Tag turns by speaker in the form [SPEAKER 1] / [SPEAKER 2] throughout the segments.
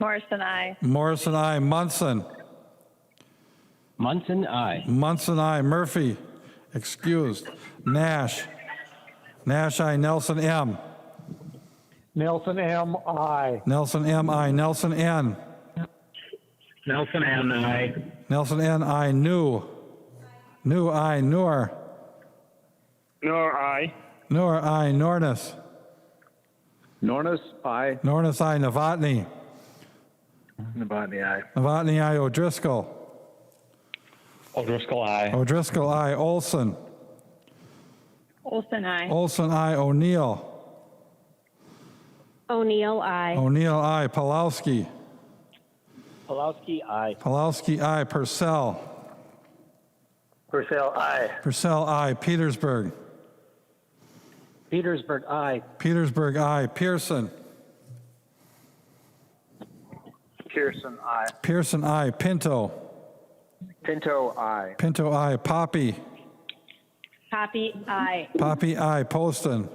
[SPEAKER 1] Morrison, I.
[SPEAKER 2] Morrison, I. Munson.
[SPEAKER 3] Munson, aye.
[SPEAKER 2] Munson, I. Murphy, excused. Nash. Nash, I. Nelson, M.
[SPEAKER 4] Nelson M. I.
[SPEAKER 2] Nelson, M, I. Nelson, N.
[SPEAKER 3] Nelson, and aye.
[SPEAKER 2] Nelson, N, I. New. New, I. Noor.
[SPEAKER 5] Nor I.
[SPEAKER 2] Noor, I. Nornis.
[SPEAKER 6] Nornis, aye.
[SPEAKER 2] Nornis, I. Novotny.
[SPEAKER 6] Novotny, aye.
[SPEAKER 2] Novotny, I. O'Driscoll.
[SPEAKER 3] O'Driscoll, aye.
[SPEAKER 2] O'Driscoll, I. Olson.
[SPEAKER 1] Olson, I.
[SPEAKER 2] Olson, I. O'Neill.
[SPEAKER 7] O'Neill, I.
[SPEAKER 2] O'Neill, I. Palowski.
[SPEAKER 3] Palowski, aye.
[SPEAKER 2] Palowski, I. Purcell.
[SPEAKER 4] Purcell, I.
[SPEAKER 2] Purcell, I. Petersburg.
[SPEAKER 3] Petersburg, aye.
[SPEAKER 2] Petersburg, I. Pearson.
[SPEAKER 6] Pearson, aye.
[SPEAKER 2] Pearson, I. Pinto.
[SPEAKER 6] Pinto, aye.
[SPEAKER 2] Pinto, I. Poppy.
[SPEAKER 7] Poppy, I.
[SPEAKER 2] Poppy, I. Poston.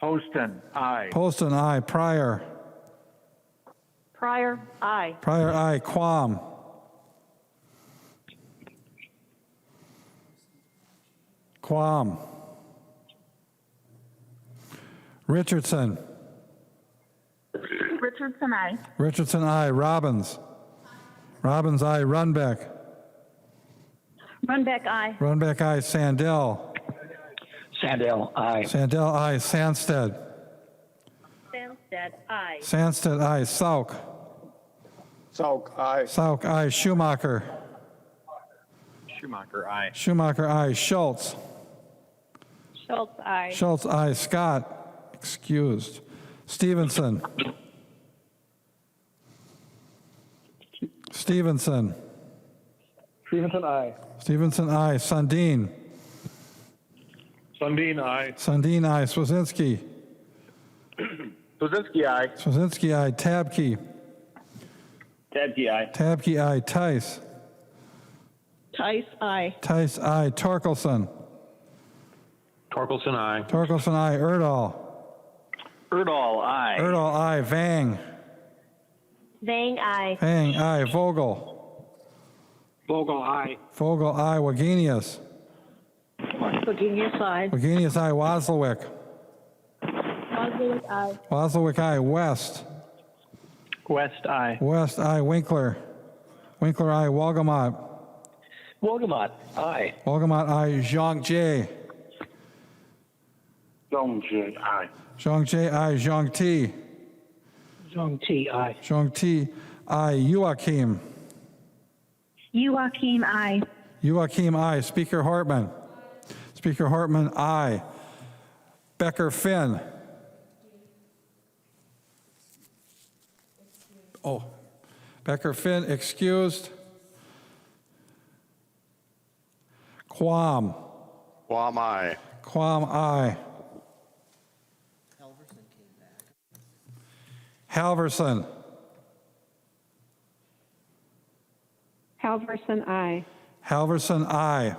[SPEAKER 6] Poston, aye.
[SPEAKER 2] Poston, I. Pryor.
[SPEAKER 7] Pryor, I.
[SPEAKER 2] Pryor, I. Quam. Quam. Richardson.
[SPEAKER 8] Richardson, I.
[SPEAKER 2] Richardson, I. Robbins. Robbins, I. Runbeck.
[SPEAKER 7] Runbeck, I.
[SPEAKER 2] Runbeck, I. Sandell.
[SPEAKER 3] Sandell, aye.
[SPEAKER 2] Sandell, I. Sandsted.
[SPEAKER 7] Samstead, I.
[SPEAKER 2] Sandsted, I. Sauk.
[SPEAKER 6] Salk, aye.
[SPEAKER 2] Sauk, I. Schumacher.
[SPEAKER 6] Schumacher, aye.
[SPEAKER 2] Schumacher, I. Schultz.
[SPEAKER 1] Schultz, I.
[SPEAKER 2] Schultz, I. Scott, excused. Stevenson. Stevenson.
[SPEAKER 4] Stevenson, I.
[SPEAKER 2] Stevenson, I. Sundin.
[SPEAKER 5] Sundin, I.
[SPEAKER 2] Sundin, I. Swazinski.
[SPEAKER 6] Blazinski, aye.
[SPEAKER 2] Swazinski, I. Tabke.
[SPEAKER 3] Tedke, aye.
[SPEAKER 2] Tabke, I. Tice.
[SPEAKER 1] Tice, I.
[SPEAKER 2] Tice, I. Torkelson.
[SPEAKER 5] Torkelson, I.
[SPEAKER 2] Torkelson, I. Erdahl.
[SPEAKER 3] Erdahl, aye.
[SPEAKER 2] Erdahl, I. Vang.
[SPEAKER 7] Vang, I.
[SPEAKER 2] Vang, I. Vogel.
[SPEAKER 5] Vogel, I.
[SPEAKER 2] Vogel, I. Wagenius.
[SPEAKER 1] Virginia, I.
[SPEAKER 2] Wagenius, I. Wasilwick.
[SPEAKER 7] Boswick, I.
[SPEAKER 2] Wasilwick, I. West.
[SPEAKER 3] West, aye.
[SPEAKER 2] West, I. Winkler. Winkler, I. Walgamot.
[SPEAKER 3] Wogamot, aye.
[SPEAKER 2] Walgamot, I. Zhang J.
[SPEAKER 6] Jones, aye.
[SPEAKER 2] Zhang J, I. Zhang T.
[SPEAKER 3] Zhang T, aye.
[SPEAKER 2] Zhang T, I. Yuakim.
[SPEAKER 7] Youakim, I.
[SPEAKER 2] Yuakim, I. Speaker Hartman. Speaker Hartman, I. Becker Finn. Oh, Becker Finn excused. Quam.
[SPEAKER 5] Quam, I.
[SPEAKER 2] Quam, I. Halverson.
[SPEAKER 8] Halverson, I.
[SPEAKER 2] Halverson, I.